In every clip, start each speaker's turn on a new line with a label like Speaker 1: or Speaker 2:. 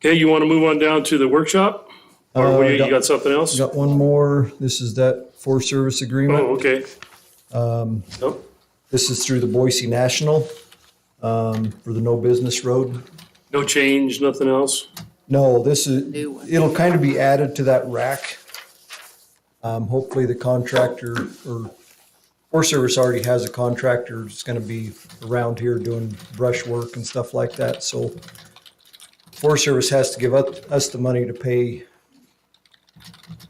Speaker 1: Okay, you want to move on down to the workshop?
Speaker 2: Uh,
Speaker 1: Or what, you you got something else?
Speaker 2: Got one more. This is that Forest Service agreement.
Speaker 1: Oh, okay.
Speaker 2: Um,
Speaker 1: Nope.
Speaker 2: This is through the Boise National um, for the No Business Road.
Speaker 1: No change, nothing else?
Speaker 2: No, this is,
Speaker 3: New one.
Speaker 2: it'll kind of be added to that rack. Um, Hopefully the contractor or Forest Service already has a contractor that's going to be around here doing brush work and stuff like that. So Forest Service has to give up- us the money to pay.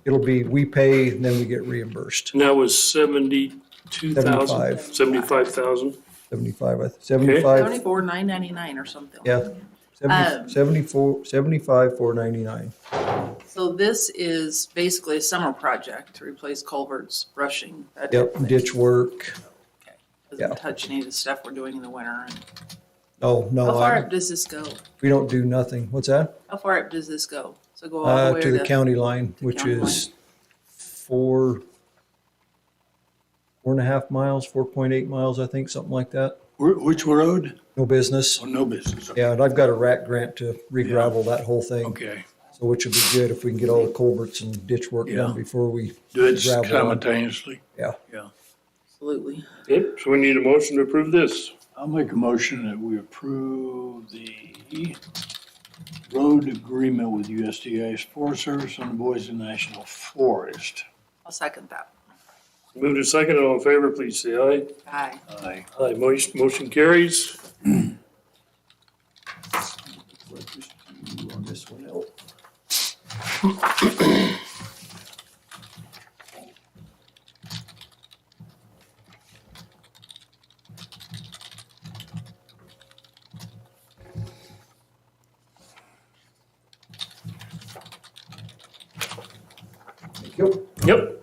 Speaker 2: It'll be, we pay, and then we get reimbursed.
Speaker 1: And that was seventy-two thousand?
Speaker 2: Seventy-five.
Speaker 1: Seventy-five thousand?
Speaker 2: 75, I th- 75.
Speaker 3: Seventy-four, nine ninety-nine or something.
Speaker 2: Yeah, 70
Speaker 3: Um,
Speaker 2: 74, 75, 499.
Speaker 3: So this is basically a summer project to replace culverts, brushing. that type of
Speaker 2: Yep,
Speaker 3: thing.
Speaker 2: ditch work.
Speaker 3: Okay.
Speaker 2: yeah.
Speaker 3: Doesn't touch any of the stuff we're doing in the winter.
Speaker 2: Oh,
Speaker 3: How
Speaker 2: no,
Speaker 3: far
Speaker 2: I-
Speaker 3: up does this go?
Speaker 2: we don't do nothing. What's that?
Speaker 3: How far up does this go? So go all the
Speaker 2: Uh,
Speaker 3: way
Speaker 2: To the
Speaker 3: to,
Speaker 2: county line, which
Speaker 3: county
Speaker 2: is four, four and a half miles, 4.8 miles, I think, something like that.
Speaker 4: Wh- Which road?
Speaker 2: No business.
Speaker 4: Oh, no business.
Speaker 2: Yeah, and I've got a rat grant to re-gravel that whole thing,
Speaker 4: Okay,
Speaker 2: so which would be good if we can get all the culverts and ditch work
Speaker 4: Yeah.
Speaker 2: done before we.
Speaker 4: do it
Speaker 2: gravel on.
Speaker 4: simultaneously.
Speaker 2: Yeah.
Speaker 4: Yeah.
Speaker 3: absolutely.
Speaker 1: Yep, so we need a motion to approve this.
Speaker 4: I'll make a motion that we approve the road agreement with USDA's Forest Service on the Boise National Forest.
Speaker 3: I'll second that.
Speaker 1: Move to second, all in favor, please say aye.
Speaker 3: Aye.
Speaker 4: Aye.
Speaker 1: Aye, motion, motion carries.
Speaker 2: Let this do on this one out. Thank you.
Speaker 1: Yep.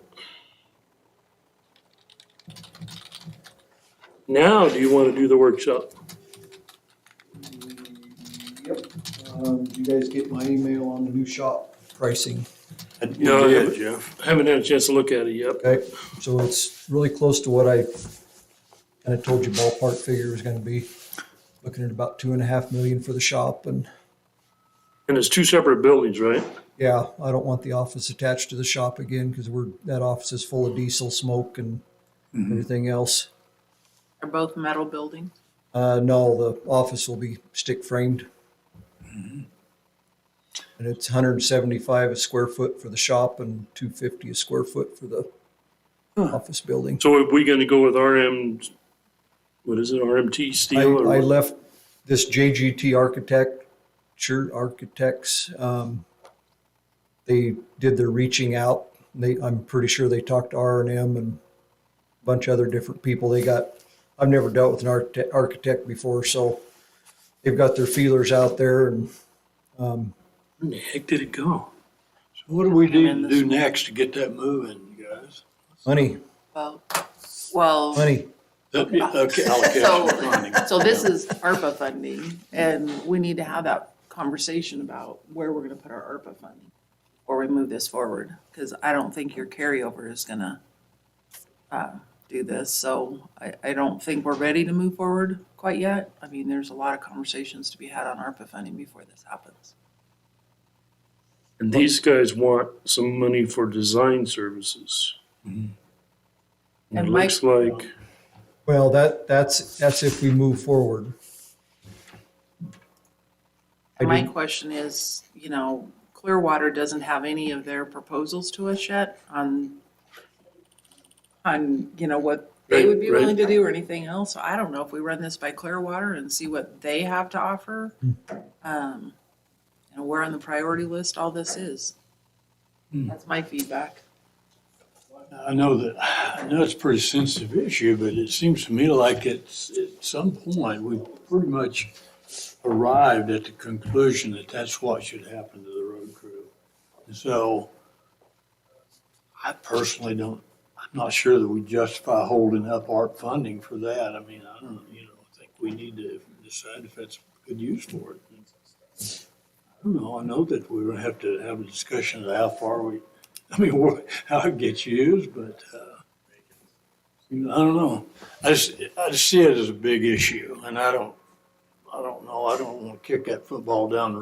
Speaker 1: Now, do you want to do the workshop?
Speaker 2: Yep. Um, did you guys get my email on the new shop pricing?
Speaker 1: No,
Speaker 4: You
Speaker 1: I
Speaker 4: did,
Speaker 1: haven't-
Speaker 4: Jeff.
Speaker 1: I haven't had a chance to look at it yet.
Speaker 2: Okay, so it's really close to what I kind of told you ballpark figure was gonna be. Looking at about two and a half million for the shop and,
Speaker 1: And it's two separate buildings, right?
Speaker 2: yeah, I don't want the office attached to the shop again because we're, that office is full of diesel smoke and everything else.
Speaker 3: They're both metal buildings.
Speaker 2: Uh, no, the office will be stick framed. And it's hundred and seventy-five a square foot for the shop and two fifty a square foot for the office building.
Speaker 1: So are we gonna go with RM, what is it, RMT
Speaker 2: I,
Speaker 1: steel? or
Speaker 2: I
Speaker 1: what?
Speaker 2: left this JGT architect, sure, architects, um, they did their reaching out. They, I'm pretty sure they talked to R and M and a bunch of other different people. They got, I've never dealt with an architect, architect before, so they've got their feelers out there and
Speaker 1: Where the heck did it go?
Speaker 4: So what do we need
Speaker 3: in
Speaker 4: to
Speaker 3: this
Speaker 4: do next to get that moving, you guys?
Speaker 2: money,
Speaker 3: Well, well.
Speaker 2: money.
Speaker 4: That- yeah, Okay,
Speaker 3: So,
Speaker 4: allocation funding.
Speaker 3: so this is ARPA funding, and we need to have that conversation about where we're gonna put our ARPA funding before we move this forward, because I don't think your carryover is gonna uh, do this, so I, I don't think we're ready to move forward quite yet. I mean, there's a lot of conversations to be had on ARPA funding before this happens.
Speaker 1: And these guys want some money for design services.
Speaker 2: Mm-hmm.
Speaker 1: It
Speaker 3: And
Speaker 1: looks like,
Speaker 2: Well, that, that's, that's if we move forward. I
Speaker 3: And My
Speaker 2: did-
Speaker 3: question is, you know, Clearwater doesn't have any of their proposals to us yet on, on, you know, what they would be
Speaker 1: Right, right.
Speaker 3: willing to do or anything else. So I don't know if we run this by Clearwater and see what they have to offer.
Speaker 1: Hmm.
Speaker 3: Um, and where on the priority list all this is. That's my feedback.
Speaker 4: I know that, I know it's a pretty sensitive issue, but it seems to me like it's, at some point, we've pretty much arrived at the conclusion that that's what should happen to the road crew. And so I personally don't, I'm not sure that we justify holding up art funding for that. I mean, I don't, you know, I think we need to decide if that's good use for it. I don't know, I know that we're gonna have to have a discussion of how far we, I mean, wha- how it gets used, but, uh, you know, I don't know. I just, I just see it as a big issue and I don't, I don't know. I don't want to kick that football down the